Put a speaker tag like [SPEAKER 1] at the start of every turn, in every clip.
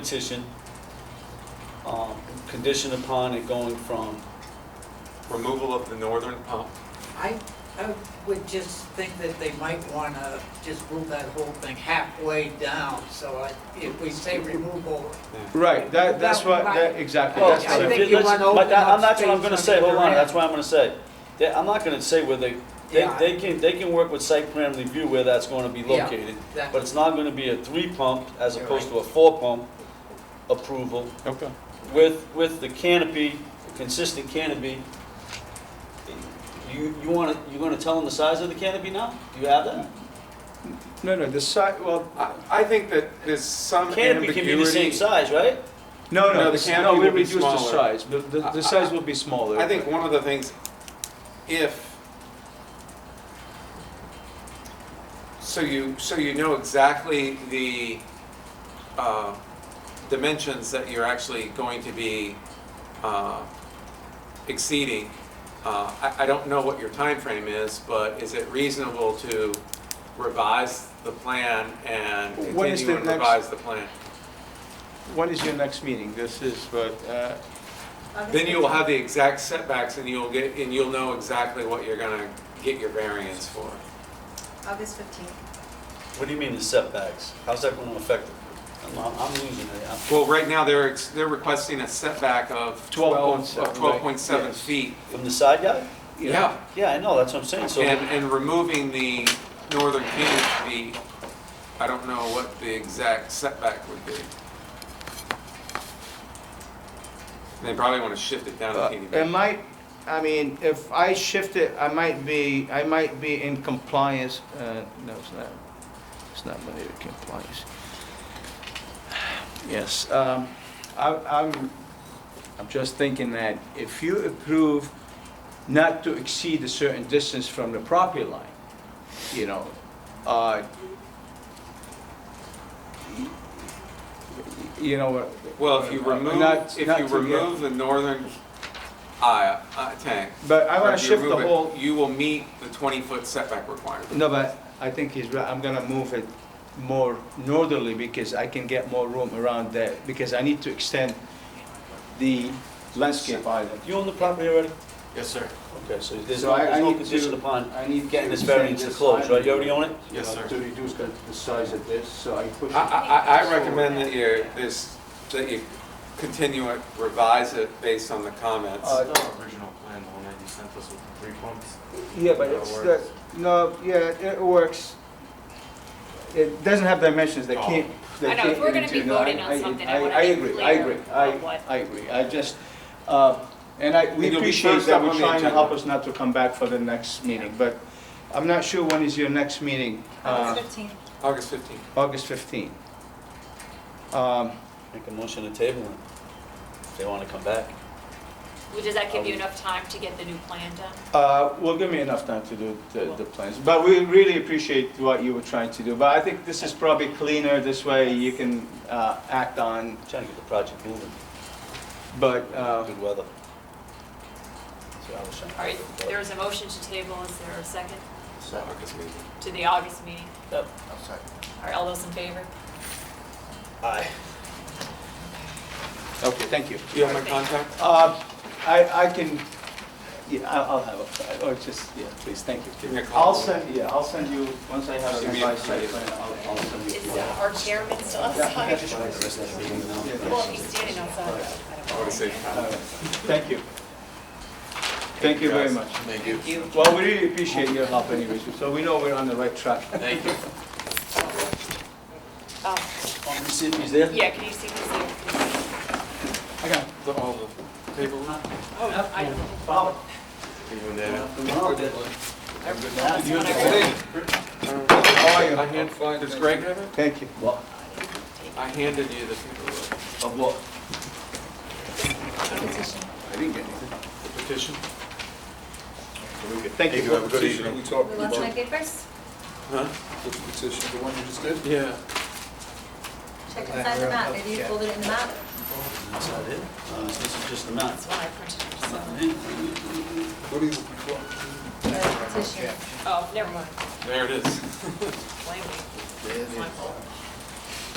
[SPEAKER 1] petition, um, conditioned upon it going from,
[SPEAKER 2] Removal of the northern pump.
[SPEAKER 3] I, I would just think that they might want to just move that whole thing halfway down, so I- if we say removal,
[SPEAKER 4] Right, that, that's what, that,
[SPEAKER 3] Right.
[SPEAKER 4] exactly,
[SPEAKER 3] Oh,
[SPEAKER 4] that's
[SPEAKER 3] yeah, I
[SPEAKER 4] what I
[SPEAKER 3] think
[SPEAKER 1] Let's-
[SPEAKER 3] you wanna open
[SPEAKER 1] but that-
[SPEAKER 3] up
[SPEAKER 1] I'm- That's what I'm
[SPEAKER 3] space
[SPEAKER 1] gonna
[SPEAKER 3] on
[SPEAKER 1] say, hold
[SPEAKER 3] the
[SPEAKER 1] on,
[SPEAKER 3] ground.
[SPEAKER 1] that's what I'm gonna say. They- I'm not gonna say where they, they,
[SPEAKER 3] Yeah.
[SPEAKER 1] they can, they can work with site plan review where that's gonna be
[SPEAKER 3] Yeah,
[SPEAKER 1] located,
[SPEAKER 3] that-
[SPEAKER 1] but it's not gonna be a three pump as
[SPEAKER 3] You're
[SPEAKER 1] opposed
[SPEAKER 3] right.
[SPEAKER 1] to a four pump approval
[SPEAKER 4] Okay,
[SPEAKER 1] with, with the canopy, consistent canopy. You, you wanna, you gonna tell them the size of the canopy now? Do you have that?
[SPEAKER 4] no, no, the side, well,
[SPEAKER 2] I, I think that there's some
[SPEAKER 1] Canopy can be the same
[SPEAKER 2] ambiguity.
[SPEAKER 1] size, right?
[SPEAKER 4] no,
[SPEAKER 2] No,
[SPEAKER 4] no,
[SPEAKER 2] the
[SPEAKER 4] the-
[SPEAKER 2] canopy
[SPEAKER 4] no, we
[SPEAKER 2] will be
[SPEAKER 4] reduced the
[SPEAKER 2] smaller.
[SPEAKER 4] size, the, the, the size will be smaller.
[SPEAKER 2] I think one of the things, if, so you, so you know exactly the, uh, dimensions that you're actually going to be, uh, exceeding. Uh, I, I don't know what your time frame is, but is it reasonable to revise the plan and
[SPEAKER 4] When is
[SPEAKER 2] continue
[SPEAKER 4] the
[SPEAKER 2] and
[SPEAKER 4] next-
[SPEAKER 2] revise the plan?
[SPEAKER 4] When is your next meeting? This is, but, uh,
[SPEAKER 2] Then you will have the exact setbacks and you'll get, and you'll know exactly what you're gonna get your variance for.
[SPEAKER 5] August 15th.
[SPEAKER 1] What do you mean the setbacks? How's that gonna affect it? I'm, I'm- I'm losing it. I'm-
[SPEAKER 2] Well, right now, they're, ex- they're requesting a setback of 12,
[SPEAKER 4] 12.7,
[SPEAKER 2] of 12.7
[SPEAKER 4] right, yes.
[SPEAKER 2] feet.
[SPEAKER 1] From the side yard?
[SPEAKER 2] Yeah,
[SPEAKER 1] Yeah, I know, that's what I'm saying, so,
[SPEAKER 2] and, and removing the northern canopy, I don't know what the exact setback would be. They probably wanna shift it down a
[SPEAKER 4] Uh,
[SPEAKER 2] teeny
[SPEAKER 4] It
[SPEAKER 2] bit.
[SPEAKER 4] might, I mean, if I shift it, I might be, I might be in compliance, uh, no, it's not, it's not my compliance. Yes, um, I, I'm, I'm just thinking that if you approve not to exceed a certain distance from the property line, you know, uh, you know what?
[SPEAKER 2] Well, if you
[SPEAKER 4] uh,
[SPEAKER 2] remove,
[SPEAKER 4] not-
[SPEAKER 2] if
[SPEAKER 4] not
[SPEAKER 2] you
[SPEAKER 4] to get-
[SPEAKER 2] remove the northern aisle, uh, tank,
[SPEAKER 4] But I
[SPEAKER 2] Or
[SPEAKER 4] want
[SPEAKER 2] if
[SPEAKER 4] to
[SPEAKER 2] you
[SPEAKER 4] shift the
[SPEAKER 2] remove it,
[SPEAKER 4] whole,
[SPEAKER 2] You will meet the 20-foot setback requirement.
[SPEAKER 4] no, but I think he's right, I'm gonna move it more northerly because I can get more room around there, because I need to extend the landscape island.
[SPEAKER 1] you own the property already?
[SPEAKER 2] Yes, sir.
[SPEAKER 1] Okay, so there's
[SPEAKER 6] So
[SPEAKER 1] no,
[SPEAKER 6] I-
[SPEAKER 1] there's
[SPEAKER 6] I
[SPEAKER 1] no
[SPEAKER 6] need
[SPEAKER 1] condition
[SPEAKER 6] to-
[SPEAKER 1] upon
[SPEAKER 6] I need
[SPEAKER 1] getting
[SPEAKER 6] to
[SPEAKER 1] this variance to
[SPEAKER 6] extend this
[SPEAKER 1] close, right? You already
[SPEAKER 6] island,
[SPEAKER 1] own it?
[SPEAKER 6] you
[SPEAKER 2] Yes,
[SPEAKER 6] know,
[SPEAKER 2] sir.
[SPEAKER 6] To reduce the, the size of this, so I push
[SPEAKER 2] I,
[SPEAKER 6] it.
[SPEAKER 2] I, I recommend that you, this, that you continue it, revise it based on the comments.
[SPEAKER 4] Uh,
[SPEAKER 7] The original plan, the one that you sent us with the three pumps.
[SPEAKER 4] Yeah, but it's, the- no, yeah, it works. It doesn't have dimensions, they
[SPEAKER 2] Oh.
[SPEAKER 4] can't, they
[SPEAKER 8] I know,
[SPEAKER 4] can't.
[SPEAKER 8] if we're gonna be
[SPEAKER 4] even do- no, I-
[SPEAKER 8] voting on something, I wanna
[SPEAKER 4] I
[SPEAKER 8] be
[SPEAKER 4] agree, I
[SPEAKER 8] clear
[SPEAKER 4] agree, I,
[SPEAKER 8] on what-
[SPEAKER 4] I agree, I just, uh, and I, we
[SPEAKER 2] And you'll be
[SPEAKER 4] appreciate
[SPEAKER 2] first
[SPEAKER 4] that
[SPEAKER 2] up
[SPEAKER 4] we're
[SPEAKER 2] on the
[SPEAKER 4] trying to
[SPEAKER 2] agenda.
[SPEAKER 4] help us not to come back for the next meeting, but I'm not sure when is your next meeting. uh,
[SPEAKER 5] August 15th.
[SPEAKER 2] August 15th.
[SPEAKER 4] August 15. Um,
[SPEAKER 1] Make a motion to table it. If They wanna come back.
[SPEAKER 8] Well, Does that
[SPEAKER 2] Oh.
[SPEAKER 8] give you enough time to get the new plan done?
[SPEAKER 4] uh, Well, give me enough time to do the the plans, but we really appreciate what you were trying to do. But I think this is probably cleaner, this way you can uh, act on,
[SPEAKER 1] I'm Trying to get the project moving,
[SPEAKER 4] but, uh,
[SPEAKER 1] good weather. That's what I was trying to
[SPEAKER 8] All right,
[SPEAKER 1] do.
[SPEAKER 8] there is a motion to table, is there a second
[SPEAKER 2] August meeting.
[SPEAKER 8] to the August meeting?
[SPEAKER 1] Yep.
[SPEAKER 8] All right, all those in favor?
[SPEAKER 1] Aye.
[SPEAKER 4] okay, thank you.
[SPEAKER 2] Do you have my contact?
[SPEAKER 4] Uh, I I can, yeah, I- I'll have a, or just, yeah, please, thank
[SPEAKER 2] Give me
[SPEAKER 4] you.
[SPEAKER 2] a call.
[SPEAKER 4] I'll send, yeah, I'll send you, once I have a
[SPEAKER 2] Give me a-
[SPEAKER 4] revised site plan, I'll I'll send you.
[SPEAKER 8] Is uh, our chairman still outside? Well, if he's standing outside, I don't know.
[SPEAKER 2] I want to say
[SPEAKER 4] Uh, Thank you. Thank you very much. Thank you. Well, we really appreciate your help anyways, so we know we're on the right track.
[SPEAKER 8] Oh,
[SPEAKER 1] Want me to see if he's there?
[SPEAKER 8] Yeah, can you see, can you see?
[SPEAKER 4] I got
[SPEAKER 2] the- all the paperwork.
[SPEAKER 8] Oh, I don't.
[SPEAKER 7] Even then,
[SPEAKER 8] that's the one I wrote.
[SPEAKER 2] Hey,
[SPEAKER 4] How are
[SPEAKER 2] Uh, I
[SPEAKER 4] you?
[SPEAKER 2] hand, does Greg have it?
[SPEAKER 4] Thank you.
[SPEAKER 2] I handed you the paperwork.
[SPEAKER 1] Of what?
[SPEAKER 4] I didn't get anything.
[SPEAKER 2] The petition?
[SPEAKER 4] Thank you. Have a good evening.
[SPEAKER 6] We talked
[SPEAKER 5] We lost my papers?
[SPEAKER 2] Huh?
[SPEAKER 6] the petition, the one you just did?
[SPEAKER 2] Yeah.
[SPEAKER 5] Check inside the map, maybe you folded it in the map.
[SPEAKER 1] That's not it. Uh, This is just the map. Uh,
[SPEAKER 8] That's the one I printed. so-
[SPEAKER 6] What do you, what-
[SPEAKER 5] Uh, Petition.
[SPEAKER 8] Oh, never mind,
[SPEAKER 2] There it is.
[SPEAKER 8] blame me. It's my fault.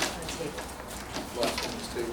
[SPEAKER 8] On the table.
[SPEAKER 6] what-